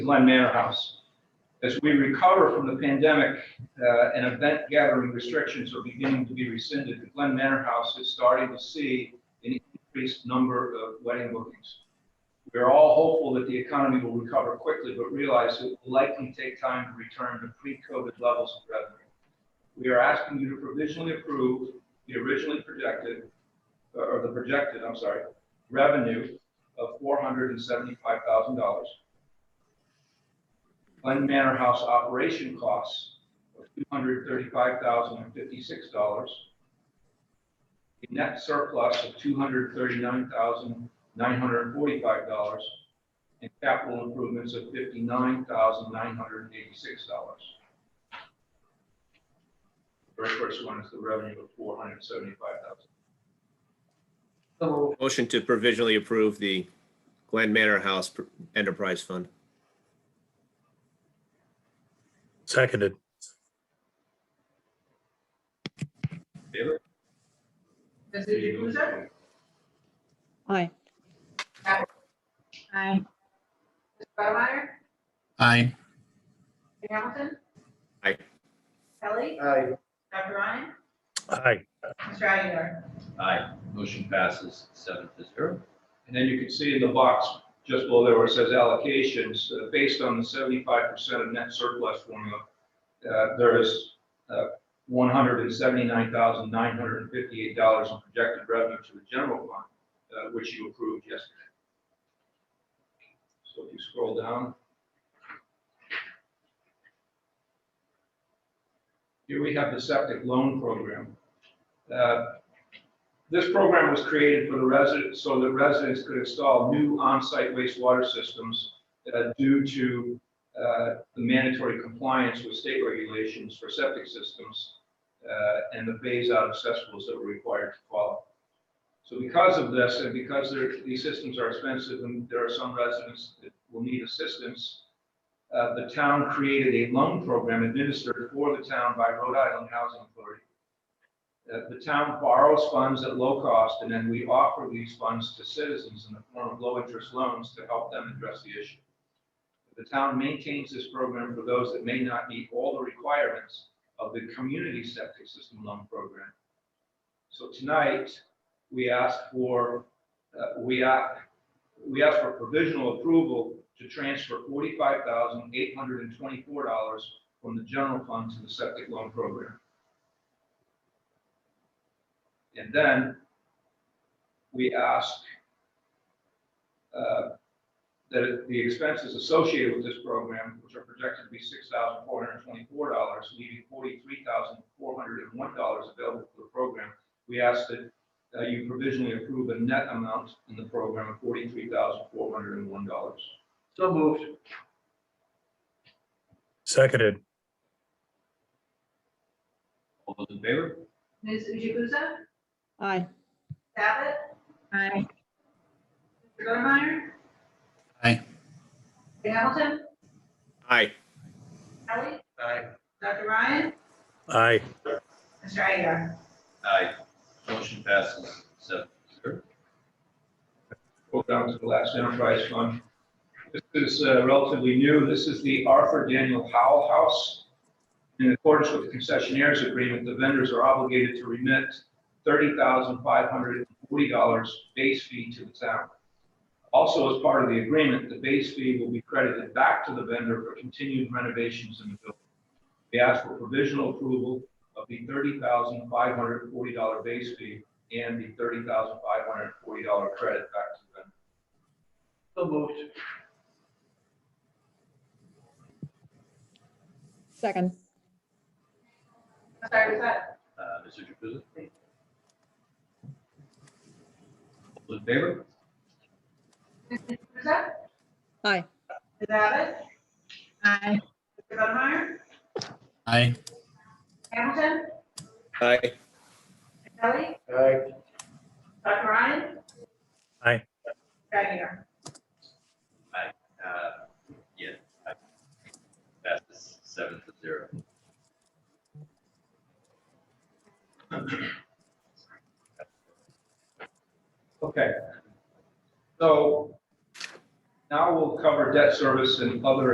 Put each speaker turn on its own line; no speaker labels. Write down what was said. Glen Manor House. As we recover from the pandemic, uh, and event gathering restrictions are beginning to be rescinded, the Glen Manor House is starting to see an increased number of wedding bookings. We are all hopeful that the economy will recover quickly, but realize it will likely take time to return to pre-COVID levels of revenue. We are asking you to provisionally approve the originally projected, uh, or the projected, I'm sorry, revenue of four hundred and seventy-five thousand dollars. Glen Manor House operation costs of two hundred thirty-five thousand and fifty-six dollars. A net surplus of two hundred thirty-nine thousand nine hundred and forty-five dollars. And capital improvements of fifty-nine thousand nine hundred and eighty-six dollars. Very first one is the revenue of four hundred and seventy-five thousand.
Motion to provisionally approve the Glen Manor House pr- Enterprise Fund.
Seconded.
David?
Mrs. Jukusa?
Aye. Aye.
Mr. Buttermeyer?
Aye.
Mr. Hamilton?
Aye.
Kelly?
Aye.
Dr. Ryan?
Aye.
Mr. Aguilar?
Aye. Motion passes seven to zero.
And then you can see in the box just below there where it says allocations, uh, based on the seventy-five percent of net surplus formula, uh, there is uh, one hundred and seventy-nine thousand nine hundred and fifty-eight dollars in projected revenue to the general fund, uh, which you approved yesterday. So if you scroll down. Here we have the septic loan program. Uh, this program was created for the residents, so that residents could install new on-site wastewater systems uh, due to uh, the mandatory compliance with state regulations for septic systems uh, and the phase-out of cesspools that were required to follow. So because of this, and because they're- these systems are expensive, and there are some residents that will need assistance, uh, the town created a loan program administered for the town by Rhode Island Housing Authority that the town borrows funds at low cost, and then we offer these funds to citizens in the form of low-interest loans to help them address the issue. The town maintains this program for those that may not meet all the requirements of the community septic system loan program. So tonight, we ask for, uh, we ask, we ask for provisional approval to transfer forty-five thousand eight hundred and twenty-four dollars from the general fund to the septic loan program. And then we ask uh, that it- the expenses associated with this program, which are projected to be six thousand four hundred and twenty-four dollars, leaving forty-three thousand four hundred and one dollars available for the program, we ask that uh, you provisionally approve a net amount in the program of forty-three thousand four hundred and one dollars. So moved.
Seconded.
All those in favor?
Mrs. Jukusa?
Aye.
Abbott?
Aye.
Mr. Buttermeyer?
Aye.
Mr. Hamilton?
Aye.
Kelly? Dr. Ryan?
Aye.
Mr. Aguilar?
Aye. Motion passes seven to zero.
Go down to the last enterprise fund. This is uh, relatively new. This is the Arthur Daniel Howell House. In accordance with the concessionaire's agreement, the vendors are obligated to remit thirty thousand five hundred and forty dollars base fee to the town. Also, as part of the agreement, the base fee will be credited back to the vendor for continued renovations in the building. We ask for provisional approval of the thirty thousand five hundred and forty dollar base fee and the thirty thousand five hundred and forty dollar credit back to them. So moved.
Second.
I'm sorry, was that?
Uh, Mr. Jukusa? All those in favor?
Mrs. Jukusa?
Aye.
Ms. Abbott?
Aye.
Mr. Buttermeyer?
Aye.
Hamilton?
Aye.
Kelly? Dr. Ryan?
Aye.
Mr. Aguilar?
Uh, yeah. aye. Passes seven to zero.
Okay. So now we'll cover debt service and other